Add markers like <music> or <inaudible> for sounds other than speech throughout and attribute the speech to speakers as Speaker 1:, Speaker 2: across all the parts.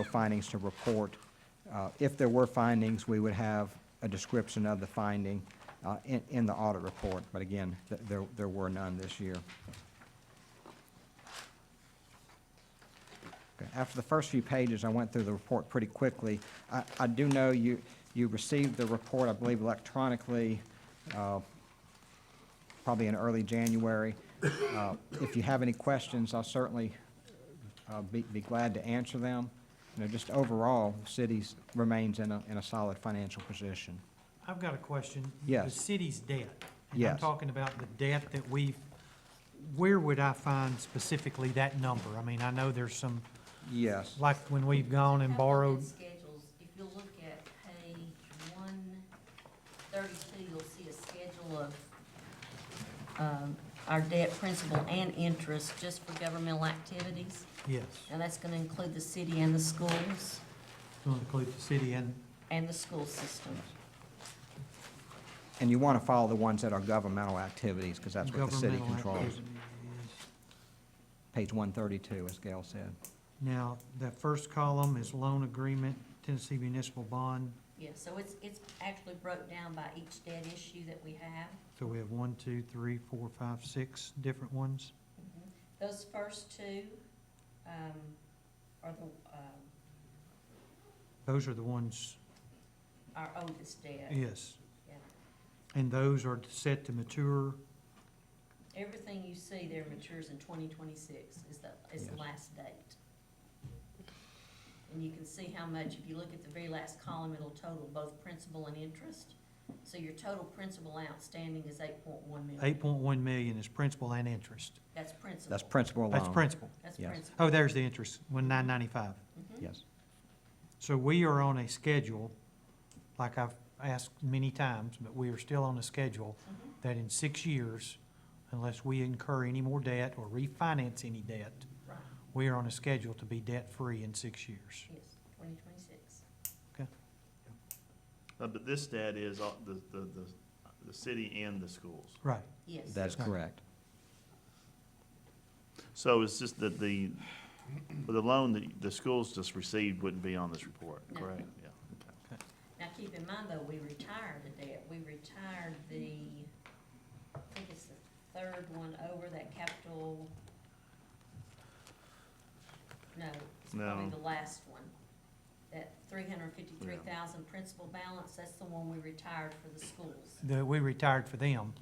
Speaker 1: no findings to report. Uh, If there were findings, we would have a description of the finding uh, in, in the audit report, but again, th- there, there were none this year. Okay, After the first few pages, I went through the report pretty quickly. I, I do know you, you received the report, I believe electronically, uh, probably in early January. Uh, If you have any questions, I'll certainly uh, be, be glad to answer them. You know, just overall, the city remains in a, in a solid financial position.
Speaker 2: I've got a question.
Speaker 1: Yes.
Speaker 2: The city's debt. And I'm
Speaker 1: Yes.
Speaker 2: talking about the debt that we've, where would I find specifically that number? I mean, I know there's some,
Speaker 1: Yes.
Speaker 2: like when we've gone and
Speaker 3: Have a look at
Speaker 2: borrowed,
Speaker 3: Schedules, if you look at page one thirty-two, you'll see a schedule of, um, our debt principal and interest just for governmental activities.
Speaker 2: yes,
Speaker 3: And that's gonna include the city and the schools,
Speaker 2: to include the city and,
Speaker 3: and the school system.
Speaker 1: And you want to follow the ones that are governmental activities, because that's what the city
Speaker 2: Governmental
Speaker 1: controls.
Speaker 2: activities.
Speaker 1: Page one thirty-two, as Gail said.
Speaker 2: Now, that first column is loan agreement, Tennessee municipal bond,
Speaker 3: Yeah, so it's, it's actually broke down by each debt issue that we have.
Speaker 2: so we have one, two, three, four, five, six different ones.
Speaker 3: Mm-hmm. Those first two, um, are the, um,
Speaker 2: Those are the ones,
Speaker 3: our oldest debt.
Speaker 2: yes.
Speaker 3: Yeah.
Speaker 2: And those are set to mature,
Speaker 3: Everything you see there matures in twenty twenty-six is the, is the
Speaker 1: Yes.
Speaker 3: last date. And you can see how much, if you look at the very last column, it'll total both principal and interest. So your total principal outstanding is eight point one million.
Speaker 2: eight point one million is principal and interest.
Speaker 3: That's principal.
Speaker 1: That's principal alone.
Speaker 2: That's principal.
Speaker 3: That's
Speaker 1: yes.
Speaker 3: principal.
Speaker 2: Oh, there's the interest, one nine ninety-five.
Speaker 3: Mhm.
Speaker 1: Yes.
Speaker 2: So we are on a schedule, like I've asked many times, but we are still on a schedule
Speaker 3: Mhm.
Speaker 2: that in six years, unless we incur any more debt or refinance any debt,
Speaker 3: Right,
Speaker 2: we are on a schedule to be debt-free in six years.
Speaker 3: yes, twenty twenty-six.
Speaker 4: Uh, But this debt is all- the, the, the, the city and the schools.
Speaker 2: Right.
Speaker 3: Yes.
Speaker 1: That is
Speaker 2: Right.
Speaker 1: correct.
Speaker 4: So it's just that the, but the loan that the schools just received wouldn't be on this report,
Speaker 3: No.
Speaker 4: correct? Yeah.
Speaker 3: Now, keep in mind though, we retired a debt. We retired the, I think it's the third one over that capital. No, it's probably
Speaker 4: No.
Speaker 3: the last one. That three hundred fifty-three thousand principal balance, that's the one we retired for the schools.
Speaker 2: The, we retired for them,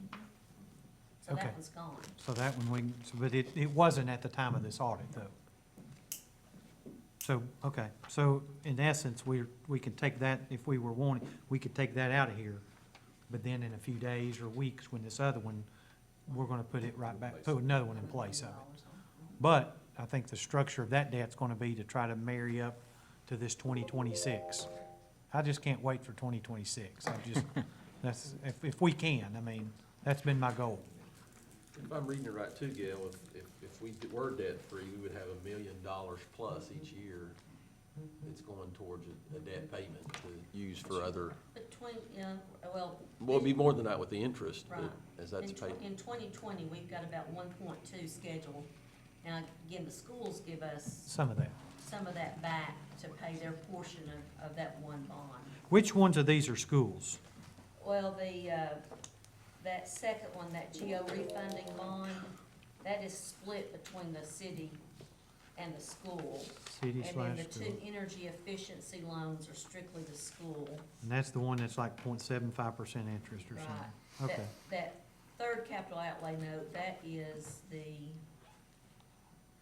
Speaker 3: So that
Speaker 2: Okay.
Speaker 3: one's gone.
Speaker 2: so that one we, so- but it, it wasn't at the time of this audit though. So, okay, so in essence, we, we can take that, if we were wanting, we could take that out of here. But then in a few days or weeks, when this other one, we're gonna put it right back, put another one in place of it. But I think the structure of that debt's gonna be to try to marry up to this twenty twenty-six. I just can't wait for twenty twenty-six. I just, <laughs> that's, if, if we can, I mean, that's been my goal.
Speaker 5: If I'm reading it right too, Gail, if, if, if we were debt-free, we would have a million dollars plus each year that's going towards a, a debt payment to use for other,
Speaker 3: Between, yeah, well.
Speaker 5: well, it'd be more than that with the interest,
Speaker 3: Right.
Speaker 5: but as that's
Speaker 3: In tw-
Speaker 5: paid.
Speaker 3: In twenty twenty, we've got about one point two scheduled. Now, again, the schools give us
Speaker 2: Some of that.
Speaker 3: some of that back to pay their portion of, of that one bond.
Speaker 2: Which ones of these are schools?
Speaker 3: Well, the, uh, that second one, that GO refunding bond, that is split between the city and the school.
Speaker 2: City
Speaker 3: And then
Speaker 2: slash
Speaker 3: the
Speaker 2: school.
Speaker 3: two energy efficiency loans are strictly the school.
Speaker 2: And that's the one that's like 0.75 percent interest or
Speaker 3: Right.
Speaker 2: something.
Speaker 3: That-
Speaker 2: Okay,
Speaker 3: That third capital outlay note, that is the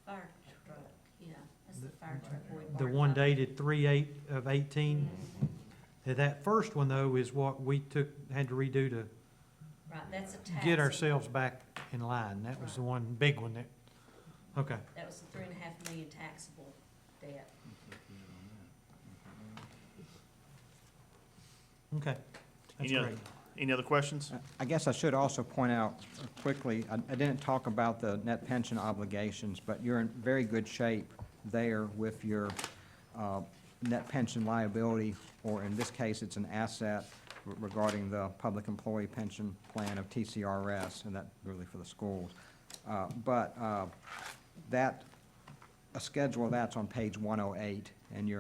Speaker 3: fire truck, yeah, that's the fire truck. we
Speaker 2: the
Speaker 3: borrowed
Speaker 2: one
Speaker 3: money.
Speaker 2: dated three eight of eighteen.
Speaker 3: Mm-hmm.
Speaker 2: That first one though is what we took, had to redo to
Speaker 3: Right, that's a tax.
Speaker 2: get ourselves back in line. That was the one, big one that, okay.
Speaker 3: That was the three and a half million taxable debt.
Speaker 2: Okay, that's
Speaker 4: Any other-
Speaker 2: great.
Speaker 4: Any other questions?
Speaker 1: I- I guess I should also point out quickly, I I didn't talk about the net pension obligations, but you're in very good shape there with your uh, net pension liability, or in this case, it's an asset re- regarding the public employee pension plan of TCRS, and that really for the schools. Uh, But uh, that, a schedule of that's on page 108, and you're